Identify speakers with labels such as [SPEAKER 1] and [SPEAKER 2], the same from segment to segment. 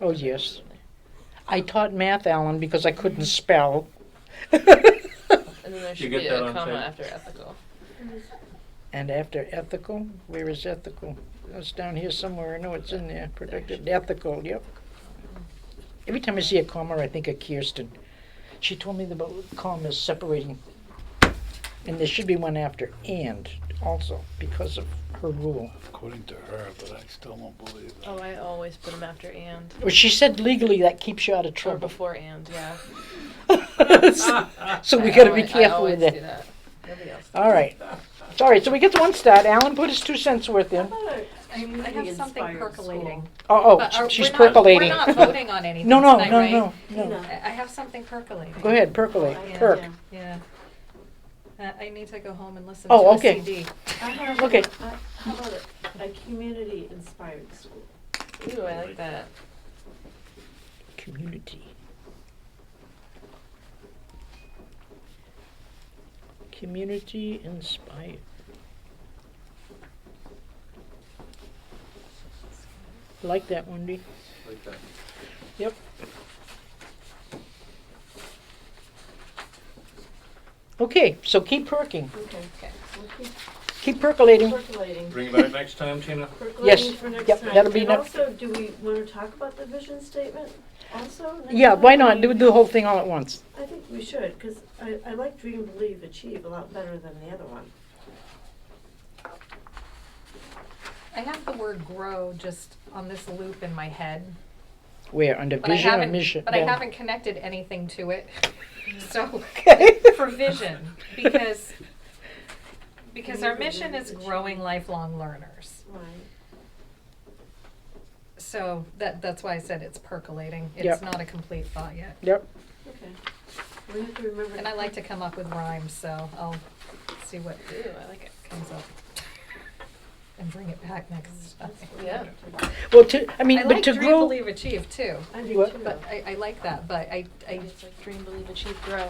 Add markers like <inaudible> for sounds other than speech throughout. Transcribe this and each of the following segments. [SPEAKER 1] Oh, yes. I taught math, Alan, because I couldn't spell.
[SPEAKER 2] And then there
[SPEAKER 3] You
[SPEAKER 2] should
[SPEAKER 3] get
[SPEAKER 2] be
[SPEAKER 3] that
[SPEAKER 2] a
[SPEAKER 3] on
[SPEAKER 2] comma
[SPEAKER 3] tape.
[SPEAKER 2] after ethical.
[SPEAKER 1] And after ethical, where is ethical? It's down here somewhere. I know it's in there. Protected ethical, yep. Every time I see a comma, I think of Kirsten. She told me the bo- comma is separating. And there should be one after and also because of her rule.
[SPEAKER 4] According to her, but I still don't believe it.
[SPEAKER 2] Oh, I always put them after and
[SPEAKER 1] Well, she said legally that keeps you out of
[SPEAKER 2] or <laughs>
[SPEAKER 1] trouble. <laughs>
[SPEAKER 2] before and. Yeah.
[SPEAKER 1] so we
[SPEAKER 2] I
[SPEAKER 1] got to be
[SPEAKER 2] always- I
[SPEAKER 1] careful
[SPEAKER 2] always
[SPEAKER 1] with that.
[SPEAKER 2] do that. Nobody else.
[SPEAKER 1] All right. All right, so we get the one stat. Alan put his two cents worth in. Uh,
[SPEAKER 5] I have something percolating.
[SPEAKER 1] Oh,
[SPEAKER 5] But
[SPEAKER 1] oh,
[SPEAKER 5] are-
[SPEAKER 1] she's
[SPEAKER 5] we're not-
[SPEAKER 1] percolating.
[SPEAKER 5] We're not voting
[SPEAKER 1] <laughs>
[SPEAKER 5] on anything
[SPEAKER 1] No, no,
[SPEAKER 5] tonight,
[SPEAKER 1] no,
[SPEAKER 5] right?
[SPEAKER 1] no, no.
[SPEAKER 5] I I have something percolating.
[SPEAKER 1] Go ahead, percolate,
[SPEAKER 5] Oh, Yeah,
[SPEAKER 1] perk.
[SPEAKER 5] Yeah. Uh, I need to go home and listen to
[SPEAKER 1] Oh,
[SPEAKER 5] a
[SPEAKER 1] okay.
[SPEAKER 5] CD.
[SPEAKER 6] I have,
[SPEAKER 1] Okay.
[SPEAKER 6] uh, how about a, a community inspired school?
[SPEAKER 2] Ooh, I like that.
[SPEAKER 1] Community. Community inspired. Like that, Wendy.
[SPEAKER 3] Like that.
[SPEAKER 1] Yep. Okay, so keep perking,
[SPEAKER 6] Okay. We'll keep
[SPEAKER 1] keep percolating.
[SPEAKER 6] Percolating.
[SPEAKER 3] Bring it back next time, Tina.
[SPEAKER 6] Percolating for next
[SPEAKER 1] Yep,
[SPEAKER 6] time.
[SPEAKER 1] that'll be
[SPEAKER 6] And
[SPEAKER 1] next-
[SPEAKER 6] also, do we wanna talk about the vision statement also? next
[SPEAKER 1] Yeah,
[SPEAKER 6] time?
[SPEAKER 1] why not? Do the whole thing all at once.
[SPEAKER 6] I think we should, cause I, I like dream, believe, achieve a lot better than the other one.
[SPEAKER 5] I have the word grow just on this loop in my head.
[SPEAKER 1] Where, under
[SPEAKER 5] But I
[SPEAKER 1] vision or mission?
[SPEAKER 5] haven't, but I
[SPEAKER 1] Yeah.
[SPEAKER 5] haven't connected anything
[SPEAKER 1] <laughs>
[SPEAKER 5] to it. So,
[SPEAKER 1] Okay.
[SPEAKER 5] for vision, because, because our mission is growing lifelong learners.
[SPEAKER 6] Right.
[SPEAKER 5] So that, that's why I said it's percolating.
[SPEAKER 1] Yep.
[SPEAKER 5] It's not a complete thought yet.
[SPEAKER 1] Yep,
[SPEAKER 6] Okay. We have to remember.
[SPEAKER 5] And I like to come up with rhymes, so I'll see what
[SPEAKER 2] Ooh, I like it.
[SPEAKER 5] comes up and bring it back next time.
[SPEAKER 2] Yeah.
[SPEAKER 1] well, to, I mean,
[SPEAKER 5] I
[SPEAKER 1] but
[SPEAKER 5] like
[SPEAKER 1] to
[SPEAKER 5] dream,
[SPEAKER 1] grow,
[SPEAKER 5] believe, achieve too.
[SPEAKER 6] I do
[SPEAKER 1] What?
[SPEAKER 6] too.
[SPEAKER 5] But I, I like that, but I, I,
[SPEAKER 2] It's like dream, believe, achieve, grow.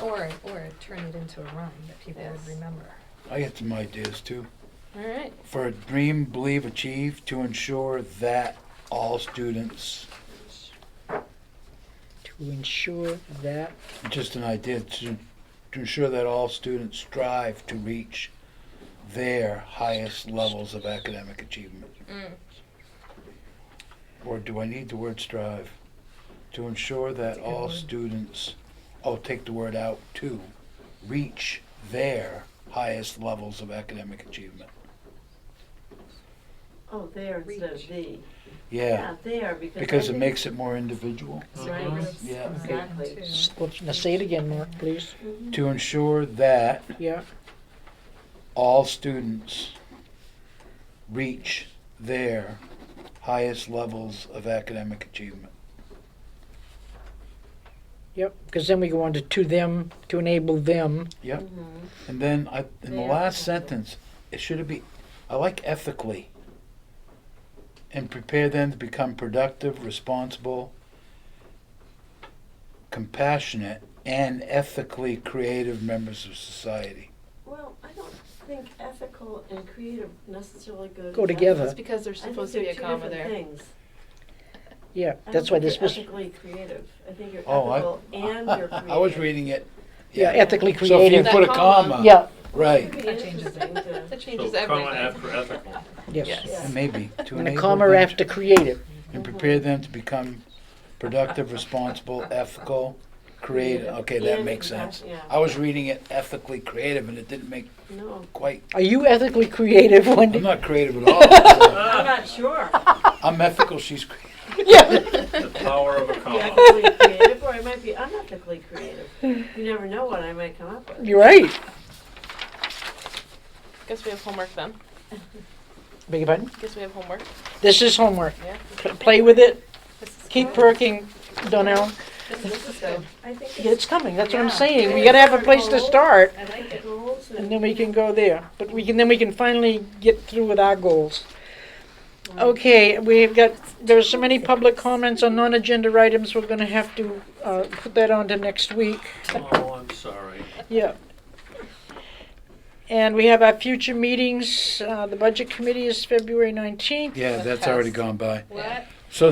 [SPEAKER 5] or, or turn it into a rhyme that people would
[SPEAKER 2] Yes.
[SPEAKER 5] remember.
[SPEAKER 4] <laughs> I had some ideas too.
[SPEAKER 2] All right.
[SPEAKER 4] For a dream, believe, achieve, to ensure that all students,
[SPEAKER 1] to ensure that,
[SPEAKER 4] just an idea, to, to ensure that all students strive to reach their highest levels of academic achievement.
[SPEAKER 2] Mm.
[SPEAKER 4] Or do I need the word strive? To ensure that
[SPEAKER 5] a good
[SPEAKER 4] all
[SPEAKER 5] word.
[SPEAKER 4] students, oh, take the word out, to reach their highest levels of academic achievement.
[SPEAKER 6] Oh, there instead of
[SPEAKER 5] Reach.
[SPEAKER 6] the.
[SPEAKER 4] Yeah,
[SPEAKER 6] there, because. I
[SPEAKER 4] because it
[SPEAKER 6] think-
[SPEAKER 4] makes it more individual.
[SPEAKER 6] Right.
[SPEAKER 5] Groups,
[SPEAKER 4] Yeah.
[SPEAKER 5] rhyme,
[SPEAKER 6] Exactly.
[SPEAKER 5] too.
[SPEAKER 1] s- well, now say it again, Mark, please.
[SPEAKER 6] Mhm.
[SPEAKER 4] To ensure that
[SPEAKER 1] Yeah,
[SPEAKER 4] all students reach their highest levels of academic achievement.
[SPEAKER 1] yep, because then we go on to to them, to enable them.
[SPEAKER 4] Yep.
[SPEAKER 2] Mm-hmm.
[SPEAKER 6] Mhm.
[SPEAKER 4] And then I, in the
[SPEAKER 2] Their
[SPEAKER 4] last
[SPEAKER 2] ethical.
[SPEAKER 4] sentence, it should be, I like ethically. And prepare them to become productive, responsible, compassionate, and ethically creative members of society.
[SPEAKER 6] Well, I don't think ethical and creative necessarily go.
[SPEAKER 1] Go together.
[SPEAKER 2] That's because there's
[SPEAKER 6] I think
[SPEAKER 2] supposed to be
[SPEAKER 6] they're
[SPEAKER 2] a
[SPEAKER 6] two
[SPEAKER 2] comma
[SPEAKER 6] different
[SPEAKER 2] there.
[SPEAKER 6] Things.
[SPEAKER 1] Yeah,
[SPEAKER 6] I
[SPEAKER 1] that's why
[SPEAKER 6] don't
[SPEAKER 1] this
[SPEAKER 6] think you're
[SPEAKER 1] was,
[SPEAKER 6] ethically creative. I think you're
[SPEAKER 4] Oh, I-
[SPEAKER 6] ethical and you're
[SPEAKER 4] <laughs>
[SPEAKER 6] creative.
[SPEAKER 4] I was reading it.
[SPEAKER 1] yeah, ethically
[SPEAKER 4] So if you
[SPEAKER 1] creative.
[SPEAKER 2] That
[SPEAKER 4] put a
[SPEAKER 2] comma.
[SPEAKER 4] comma,
[SPEAKER 1] Yeah,
[SPEAKER 4] right,
[SPEAKER 6] It'd be
[SPEAKER 5] That changes
[SPEAKER 6] interesting to-
[SPEAKER 2] That changes
[SPEAKER 3] so comma
[SPEAKER 2] everything.
[SPEAKER 3] after ethical.
[SPEAKER 1] yes.
[SPEAKER 2] Yes.
[SPEAKER 6] Yeah.
[SPEAKER 4] maybe. to
[SPEAKER 1] And a
[SPEAKER 4] enable
[SPEAKER 1] comma
[SPEAKER 4] them to-
[SPEAKER 1] after creative.
[SPEAKER 4] And prepare them to become productive, responsible, ethical, creative. Okay, that
[SPEAKER 6] And
[SPEAKER 4] makes sense.
[SPEAKER 6] compa- yeah.
[SPEAKER 4] I was reading it ethically creative and it didn't make
[SPEAKER 6] No,
[SPEAKER 4] quite
[SPEAKER 1] Are you ethically creative, <laughs>
[SPEAKER 4] I'm
[SPEAKER 1] Wendy?
[SPEAKER 4] not creative at all. so
[SPEAKER 6] I'm not sure.
[SPEAKER 4] I'm ethical. She's creative.
[SPEAKER 1] Yeah,
[SPEAKER 3] The power of a
[SPEAKER 6] Be
[SPEAKER 3] comma.
[SPEAKER 6] ethically creative, or I might be unethically creative. You never know what I might come
[SPEAKER 4] <laughs>
[SPEAKER 6] up with.
[SPEAKER 1] you're right.
[SPEAKER 2] <laughs> Guess we have homework then.
[SPEAKER 1] Beg your pardon?
[SPEAKER 2] Guess we have homework.
[SPEAKER 1] This is homework.
[SPEAKER 2] Yeah.
[SPEAKER 1] Pl- Play with it,
[SPEAKER 5] This is
[SPEAKER 1] keep
[SPEAKER 5] good.
[SPEAKER 1] perking, Donnell.
[SPEAKER 2] This, this is good.
[SPEAKER 6] I think
[SPEAKER 1] Yeah, It's coming, that's what I'm
[SPEAKER 5] Yeah.
[SPEAKER 1] saying. We gotta have a place to start.
[SPEAKER 5] I like
[SPEAKER 6] the
[SPEAKER 5] it.
[SPEAKER 6] goals
[SPEAKER 1] And then we can go there, but we can, then we can finally get through with our goals. Okay, we've got, there's so many public comments on non-agenda items, we're gonna have to, uh, put that on to next week,
[SPEAKER 3] Oh, I'm sorry.
[SPEAKER 1] yeah. And we have our future meetings, uh, the budget committee is February nineteenth.
[SPEAKER 4] Yeah,
[SPEAKER 2] With
[SPEAKER 4] that's already
[SPEAKER 2] test.
[SPEAKER 4] gone by.
[SPEAKER 2] What?